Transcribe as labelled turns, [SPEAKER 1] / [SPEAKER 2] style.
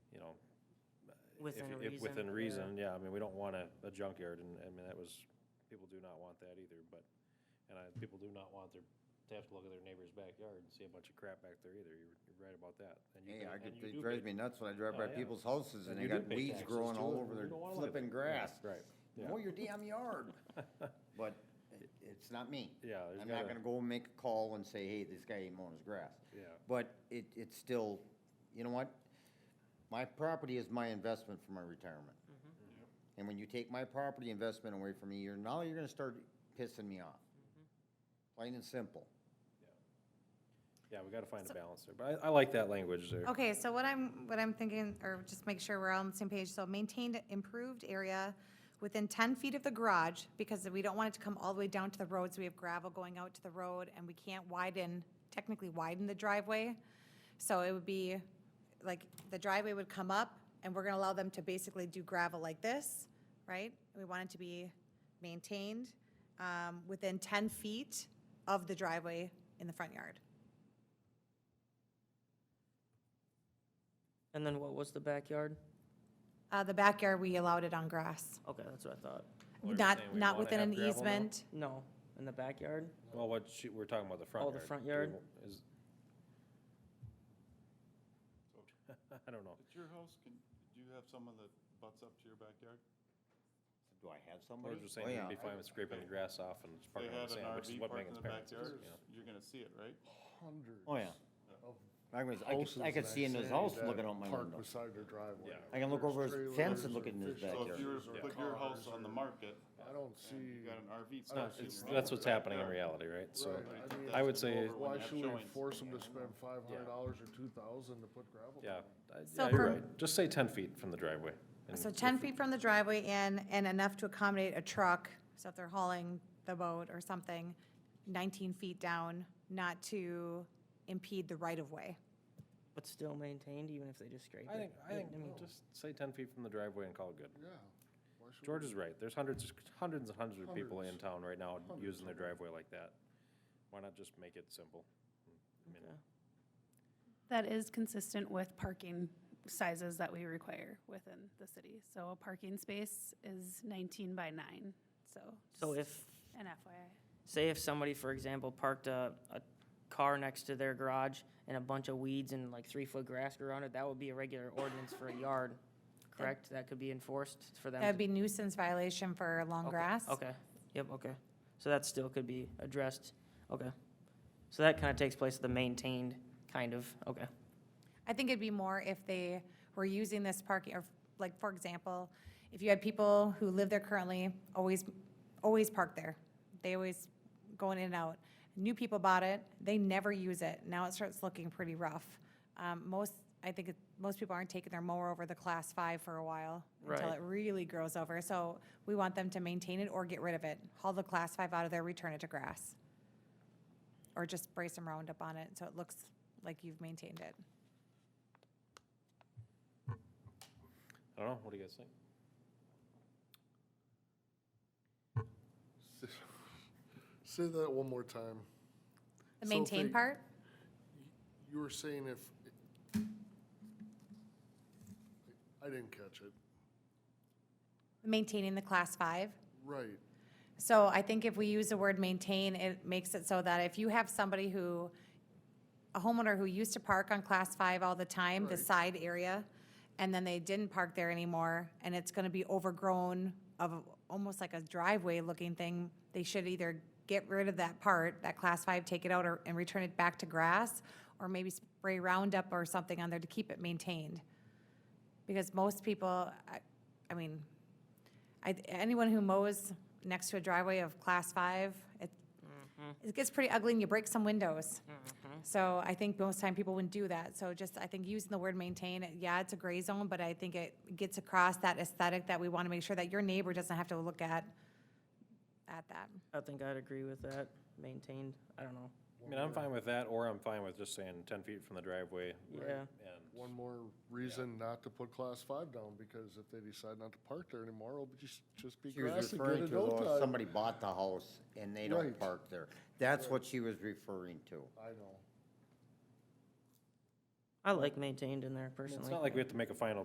[SPEAKER 1] If-
[SPEAKER 2] Within
[SPEAKER 1] if
[SPEAKER 2] reason.
[SPEAKER 1] Within reason, yeah, I mean, we don't want a, a junkyard, and, I mean, that was, people do not want that either, but, and I, people do not want their, to have to look at their neighbor's backyard and see a bunch of crap back there either, you're, you're right about that. And you can-
[SPEAKER 3] Hey, I
[SPEAKER 1] and
[SPEAKER 3] could,
[SPEAKER 1] you
[SPEAKER 3] it
[SPEAKER 1] do
[SPEAKER 3] drives
[SPEAKER 1] pay-
[SPEAKER 3] me nuts when I drive
[SPEAKER 1] Oh,
[SPEAKER 3] by
[SPEAKER 1] yeah.
[SPEAKER 3] people's houses
[SPEAKER 1] And
[SPEAKER 3] and they
[SPEAKER 1] you do
[SPEAKER 3] got
[SPEAKER 1] pay
[SPEAKER 3] weeds
[SPEAKER 1] taxes
[SPEAKER 3] growing
[SPEAKER 1] too,
[SPEAKER 3] all
[SPEAKER 1] and
[SPEAKER 3] over
[SPEAKER 1] we
[SPEAKER 3] their
[SPEAKER 1] don't wanna live
[SPEAKER 3] flipping
[SPEAKER 1] there.
[SPEAKER 3] grass.
[SPEAKER 1] Yeah, Right,
[SPEAKER 3] Mow
[SPEAKER 1] yeah,
[SPEAKER 3] your damn yard. But it- it's not me.
[SPEAKER 1] Yeah, there's
[SPEAKER 3] I'm not
[SPEAKER 1] gotta-
[SPEAKER 3] gonna go and make a call and say, hey, this guy ain't mowing his grass.
[SPEAKER 1] Yeah.
[SPEAKER 3] But it, it's still, you know what? My property is my investment for my retirement. And when you take my property investment away from me, you're, now you're gonna start pissing me off. Plain and simple.
[SPEAKER 1] yeah, we gotta find a balance there, but I, I like that language there.
[SPEAKER 4] Okay, so what I'm, what I'm thinking, or just make sure we're all on the same page, so maintained improved area within ten feet of the garage, because we don't want it to come all the way down to the road, so we have gravel going out to the road, and we can't widen, technically widen the driveway. So it would be, like, the driveway would come up, and we're gonna allow them to basically do gravel like this, right? We want it to be maintained, um, within ten feet of the driveway in the front yard.
[SPEAKER 2] And then what was the backyard?
[SPEAKER 4] Uh, the backyard, we allowed it on grass.
[SPEAKER 2] Okay, that's what I thought.
[SPEAKER 1] Well, you're saying
[SPEAKER 4] Not,
[SPEAKER 1] we
[SPEAKER 4] not
[SPEAKER 1] wanna
[SPEAKER 4] within
[SPEAKER 1] have
[SPEAKER 4] an
[SPEAKER 1] gravel now? Mm-hmm.
[SPEAKER 4] easement.
[SPEAKER 2] No, in the backyard?
[SPEAKER 1] Well, what, she- we're talking about the front
[SPEAKER 2] Oh,
[SPEAKER 1] yard.
[SPEAKER 2] the front
[SPEAKER 1] Do we
[SPEAKER 2] yard?
[SPEAKER 1] wa- Is. I don't know,
[SPEAKER 5] At your house, can, do you have someone that butts up to your backyard?
[SPEAKER 3] Do I have
[SPEAKER 1] we're
[SPEAKER 3] somebody?
[SPEAKER 1] just
[SPEAKER 3] Oh,
[SPEAKER 1] saying,
[SPEAKER 3] yeah.
[SPEAKER 1] it'd be fine with scraping the grass off and just
[SPEAKER 5] They
[SPEAKER 1] parking on the
[SPEAKER 5] had an
[SPEAKER 1] sand, which is
[SPEAKER 5] RV
[SPEAKER 1] what
[SPEAKER 5] parked in
[SPEAKER 1] Megan's
[SPEAKER 5] the
[SPEAKER 1] parents did,
[SPEAKER 5] backyard,
[SPEAKER 1] you know.
[SPEAKER 5] you're gonna see it, right?
[SPEAKER 6] hundreds.
[SPEAKER 3] Oh, yeah.
[SPEAKER 6] of
[SPEAKER 3] I was, I could, I could
[SPEAKER 6] houses
[SPEAKER 3] see in
[SPEAKER 6] that
[SPEAKER 3] his house
[SPEAKER 6] that
[SPEAKER 3] looking out my
[SPEAKER 6] park
[SPEAKER 3] window.
[SPEAKER 6] Beside their driveway.
[SPEAKER 1] Yeah.
[SPEAKER 3] I can look over his
[SPEAKER 6] Trailers
[SPEAKER 3] fence and
[SPEAKER 6] or
[SPEAKER 3] look in his
[SPEAKER 6] fish
[SPEAKER 3] backyard.
[SPEAKER 5] So if you were
[SPEAKER 6] houses
[SPEAKER 5] to
[SPEAKER 6] or
[SPEAKER 5] put your
[SPEAKER 6] cars
[SPEAKER 5] house on the
[SPEAKER 6] or-
[SPEAKER 5] market,
[SPEAKER 6] I don't
[SPEAKER 5] you
[SPEAKER 6] see,
[SPEAKER 5] got an RV
[SPEAKER 6] I don't
[SPEAKER 5] stationed.
[SPEAKER 1] It's-
[SPEAKER 6] see
[SPEAKER 5] right
[SPEAKER 1] That's
[SPEAKER 5] in
[SPEAKER 1] what's
[SPEAKER 5] your
[SPEAKER 1] happening in
[SPEAKER 5] backyard.
[SPEAKER 1] reality, right? So,
[SPEAKER 6] right, I mean.
[SPEAKER 1] I would say-
[SPEAKER 5] Over
[SPEAKER 6] Why
[SPEAKER 5] when you have
[SPEAKER 6] should we
[SPEAKER 5] showings.
[SPEAKER 6] force them to spend five hundred dollars or two thousand to put gravel?
[SPEAKER 1] yeah, I-
[SPEAKER 4] So
[SPEAKER 1] yeah, you're
[SPEAKER 4] for-
[SPEAKER 1] right, just say ten feet from the driveway. and
[SPEAKER 4] So ten feet from the driveway in and enough to accommodate a truck, so if they're hauling the boat or something, nineteen feet down, not to impede the right of way.
[SPEAKER 2] But still maintained, even if they just scrape it?
[SPEAKER 1] I think, I
[SPEAKER 2] mean,
[SPEAKER 1] think, just say ten feet from the driveway and call it good.
[SPEAKER 6] Yeah. Why should we-
[SPEAKER 1] George is right, there's hundreds, hundreds and hundreds of people in
[SPEAKER 6] Hundreds.
[SPEAKER 1] town right now
[SPEAKER 6] Hundreds
[SPEAKER 1] using their
[SPEAKER 6] of them.
[SPEAKER 1] driveway like that. Why not just make it simple? I mean,
[SPEAKER 2] okay.
[SPEAKER 7] That is consistent with parking sizes that we require within the city. So a parking space is 19 by 9, so.
[SPEAKER 2] So
[SPEAKER 7] just
[SPEAKER 2] if,
[SPEAKER 7] An FYI.
[SPEAKER 2] say if somebody, for example, parked a, a car next to their garage and a bunch of weeds and like three-foot grass grew around it, that would be a regular ordinance for a yard, correct? That could be enforced for them?
[SPEAKER 4] That'd
[SPEAKER 2] to-
[SPEAKER 4] be nuisance violation for long
[SPEAKER 2] Okay,
[SPEAKER 4] grass.
[SPEAKER 2] Okay, yep, okay. So that still could be addressed, okay. So that kind of takes place, the maintained, kind of, okay.
[SPEAKER 4] I think it'd be more if they were using this parking, or like, for example, if you had people who live there currently, always, always park there. They always going in and out. New people bought it, they never use it. Now it starts looking pretty rough. Um, most, I think, it- most people aren't taking their mower over the class five for a while until
[SPEAKER 2] Right.
[SPEAKER 4] it really grows over. So we want them to maintain it or get rid of it. Haul the class five out of there, return it to grass. Or just spray some Roundup on it so it looks like you've maintained it.
[SPEAKER 1] I don't know, what do you guys think?
[SPEAKER 6] Say that one more time.
[SPEAKER 4] The
[SPEAKER 6] So if
[SPEAKER 4] maintain
[SPEAKER 6] they-
[SPEAKER 4] part?
[SPEAKER 6] You were saying if, I didn't catch it.
[SPEAKER 4] Maintaining the class five.
[SPEAKER 6] Right.
[SPEAKER 4] So I think if we use the word maintain, it makes it so that if you have somebody who, a homeowner who used to park on class five all the time, the
[SPEAKER 6] Right.
[SPEAKER 4] side area, and then they didn't park there anymore, and it's gonna be overgrown of almost like a driveway looking thing, they should either get rid of that part, that class five, take it out or, and return it back to grass, or maybe spray Roundup or something on there to keep it maintained. Because most people, I, I mean, I, anyone who mows next to a driveway of class five, it, it gets pretty ugly and you break some windows. So I think most time people wouldn't do that. So just, I think using the word maintain, yeah, it's a gray zone, but I think it gets across that aesthetic that we want to make sure that your neighbor doesn't have to look at, at that.
[SPEAKER 2] I think I'd agree with that, maintained, I don't know,
[SPEAKER 1] I mean, I'm fine with that, or I'm fine with just saying ten feet from the driveway.
[SPEAKER 2] yeah.
[SPEAKER 1] And,
[SPEAKER 6] One more reason not to put class five down, because if they decide not to park there anymore, it'll be just, just be
[SPEAKER 3] She was
[SPEAKER 6] grass and good
[SPEAKER 3] referring to
[SPEAKER 6] adult
[SPEAKER 3] though, if
[SPEAKER 6] time.
[SPEAKER 3] somebody bought the house and they don't
[SPEAKER 6] Right.
[SPEAKER 3] park there. That's what she was referring to.
[SPEAKER 6] I know.
[SPEAKER 2] I like maintained in there
[SPEAKER 1] I mean,
[SPEAKER 2] personally.
[SPEAKER 1] it's not like we have to make a final